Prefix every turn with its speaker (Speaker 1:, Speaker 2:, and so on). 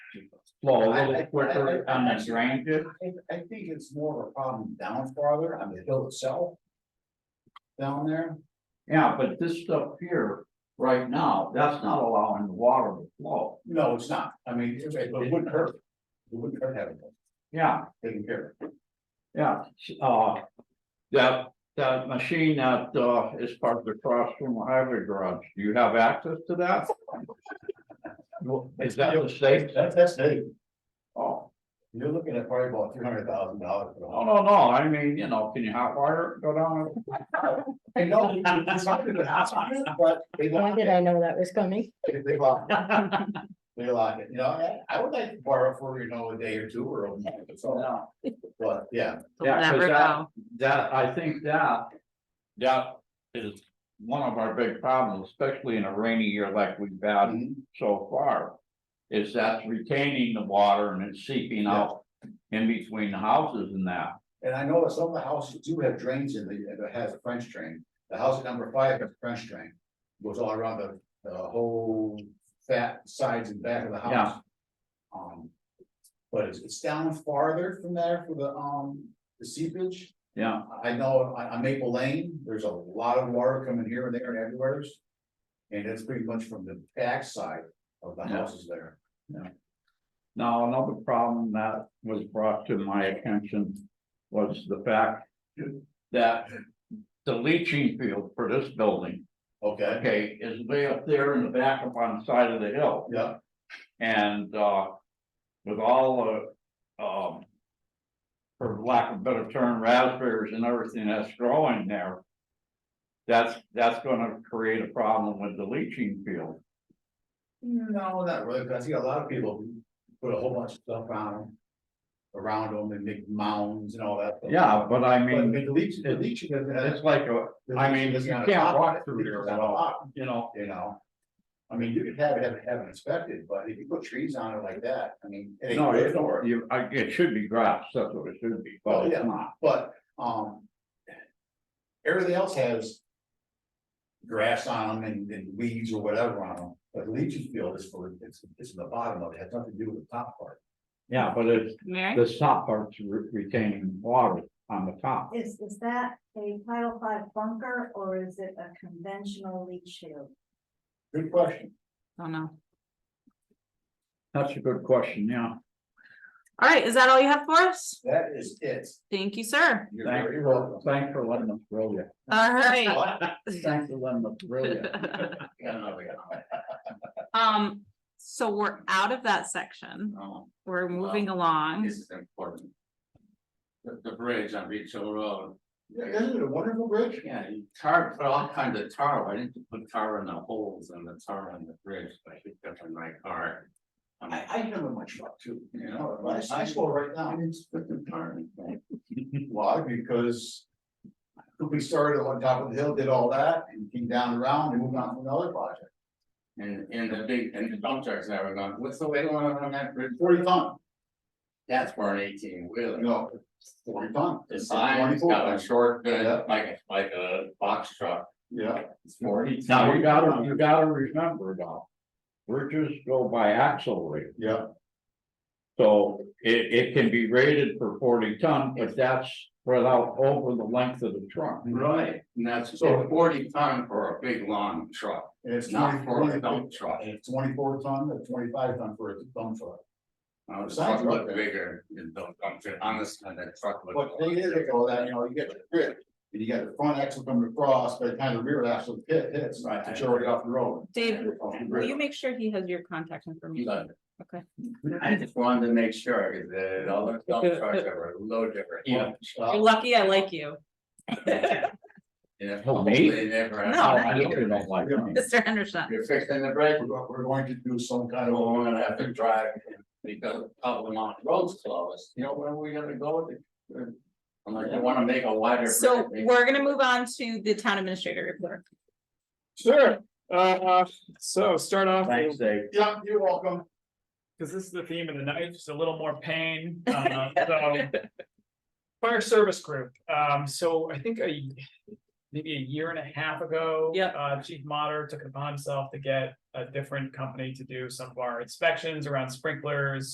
Speaker 1: flow a
Speaker 2: I-
Speaker 1: little
Speaker 2: I-
Speaker 1: quicker
Speaker 2: I-
Speaker 1: on the drain.
Speaker 2: I, I think it's more of a problem down farther on the hill itself. Down there,
Speaker 1: Yeah, but this stuff here, right now, that's not allowing the water to flow.
Speaker 2: no, it's not, I mean, it it wouldn't hurt. It wouldn't hurt having it
Speaker 1: Yeah,
Speaker 2: taken care of.
Speaker 1: yeah, uh. That, that machine that, uh, is parked across from the highway garage, do you have access to that? Well, Is that the state?
Speaker 2: That's, that's it,
Speaker 1: Oh,
Speaker 2: you're looking at probably about three hundred thousand dollars.
Speaker 1: no, no, no, I mean, you know, can you hot wire it, go down? it?
Speaker 2: I know, it's something that happens, but they
Speaker 3: Why
Speaker 2: lock
Speaker 3: did
Speaker 2: it,
Speaker 3: I know that was coming?
Speaker 2: They- they lock it. They lock it, you know, I- I would like to borrow for, you know, a day or two or, a month or so,
Speaker 1: Yeah.
Speaker 2: but yeah,
Speaker 4: We'll
Speaker 1: Yeah, 'cause
Speaker 4: never
Speaker 1: that,
Speaker 4: know.
Speaker 1: that, I think that, that is one of our big problems, especially in a rainy year like we've had
Speaker 2: Mhm.
Speaker 1: so far. Is that's retaining the water and it's seeping out in between the houses and that.
Speaker 2: and I know that some of the houses do have drains in the, that has a French drain. The house at number five has a French drain, goes all around the, the whole fat sides and back of the
Speaker 1: Yeah.
Speaker 2: house. Um, but it's, it's down farther from there for the, um, the seepage.
Speaker 1: Yeah,
Speaker 2: I know on, on Maple Lane, there's a lot of water coming here and there and everywhere. And it's pretty much from the backside of the
Speaker 1: Yeah.
Speaker 2: houses there.
Speaker 1: now another problem that was brought to my attention was the fact that. The leaching field for this building,
Speaker 2: Okay,
Speaker 1: okay, is way up there in the back up on the side of the hill.
Speaker 2: yeah,
Speaker 1: And uh, with all the um. For lack of a better term, raspberries and everything that's growing there. That's, that's gonna create a problem with the leaching field.
Speaker 2: no, not really, because I see a lot of people put a whole bunch of stuff on them. Around them and make mounds and all that. stuff.
Speaker 1: Yeah, but I
Speaker 2: But
Speaker 1: mean,
Speaker 2: the leaching, the leaching.
Speaker 1: it's like, a I mean, you can't walk through there at all, you know,
Speaker 2: You know, I mean, you could have it, have it, have it inspected, but if you put trees on it like that, I mean. it ain't
Speaker 1: no,
Speaker 2: good
Speaker 1: it,
Speaker 2: for it.
Speaker 1: you, I, it should be grass, that's what it should be,
Speaker 2: Oh,
Speaker 1: but
Speaker 2: yeah.
Speaker 1: it's not.
Speaker 2: But, um. Everything else has. Grass on them and, and weeds or whatever on them, but the leaching field is for, it's, it's in the bottom of it, has nothing to do with the top part.
Speaker 1: Yeah, but it's,
Speaker 4: Mary?
Speaker 1: the top part's re- retaining water on the top.
Speaker 5: Is, is that a Title Five bunker or is it a conventional leach field?
Speaker 2: Good question.
Speaker 4: Oh, no.
Speaker 1: That's a good question, yeah.
Speaker 4: All right, is that all you have for us?
Speaker 2: That is it.
Speaker 4: Thank you, sir.
Speaker 2: You're
Speaker 1: Thank
Speaker 2: very welcome.
Speaker 1: Thanks for letting us grill you.
Speaker 4: All right.
Speaker 1: Thanks for letting us grill you.
Speaker 2: Yeah, no, we got
Speaker 4: Um, so we're out of that section.
Speaker 2: it. Um,
Speaker 4: We're moving along.
Speaker 2: This is important.
Speaker 6: the, the bridge on Beach Hill Road.
Speaker 2: Yeah, isn't it a wonderful bridge?
Speaker 6: Yeah, he tar, put all kinds of tar, I didn't put tar in the holes and the tar on the bridge, but I picked up in my car. Um,
Speaker 2: I, I never much luck too, you know,
Speaker 6: Yeah.
Speaker 2: but I saw right now.
Speaker 6: I didn't put the tar in. it.
Speaker 2: Why? Because. We started on top of the hill, did all that and came down around and moved on to another project.
Speaker 6: And, and the big, and the dump trucks that were going, what's the weight limit on that bridge?
Speaker 2: Forty ton,
Speaker 6: That's for an eighteen wheeler.
Speaker 2: no, forty ton.
Speaker 6: The sign's got a short,
Speaker 2: Yeah.
Speaker 6: bit, like, a- like a box truck,
Speaker 2: Yeah,
Speaker 6: it's forty.
Speaker 1: Now, you gotta, you gotta remember though, bridges go by axle rate,
Speaker 2: yeah,
Speaker 1: so it, it can be rated for forty ton, but that's spread out over the length of the truck.
Speaker 6: Right, and that's
Speaker 2: So-
Speaker 6: forty ton for a big long truck,
Speaker 2: and it's
Speaker 6: it's not for
Speaker 2: 24
Speaker 6: a dump truck.
Speaker 2: and it's twenty-four ton or twenty-five ton for a dump truck.
Speaker 6: Uh, the
Speaker 2: Sounds
Speaker 6: truck
Speaker 2: like
Speaker 6: looked
Speaker 2: that.
Speaker 6: bigger than the dump truck, honestly, that truck looked.
Speaker 2: But the thing is, they go that, you know, you get the grip, and you got the front axle coming across, but kind of rear axle pit hits, right, to it off the road.
Speaker 4: Dave, will you make sure he has your contact information? Okay.
Speaker 6: I just wanted to make sure, because the, all the dump trucks are a little different.
Speaker 1: Yeah.
Speaker 4: You're lucky I like you,
Speaker 6: Yeah.
Speaker 1: Oh, me?
Speaker 6: They never-
Speaker 4: No,
Speaker 1: Oh, I know you don't like me.
Speaker 4: Mr. Henderson.
Speaker 6: You're fixing the brake,
Speaker 2: We're, go- we're going to do some
Speaker 6: I
Speaker 2: kind of.
Speaker 6: don't wanna have to drive, because of the mountain roads closed, you know, where are we gonna go? Unless you wanna make a wider.
Speaker 4: So
Speaker 6: bridge.
Speaker 4: we're gonna move on to the town administrator report.
Speaker 7: Sure, uh, so start off,
Speaker 1: Thanks, Dave.
Speaker 2: Yeah, you're welcome.
Speaker 7: because this is the theme of the night, just a little more pain, uh, so. Fire service group, um, so I think a maybe a year and a half ago.
Speaker 4: Yep.
Speaker 7: Uh, Chief Mater took it upon himself to get a different company to do some of our inspections around sprinklers,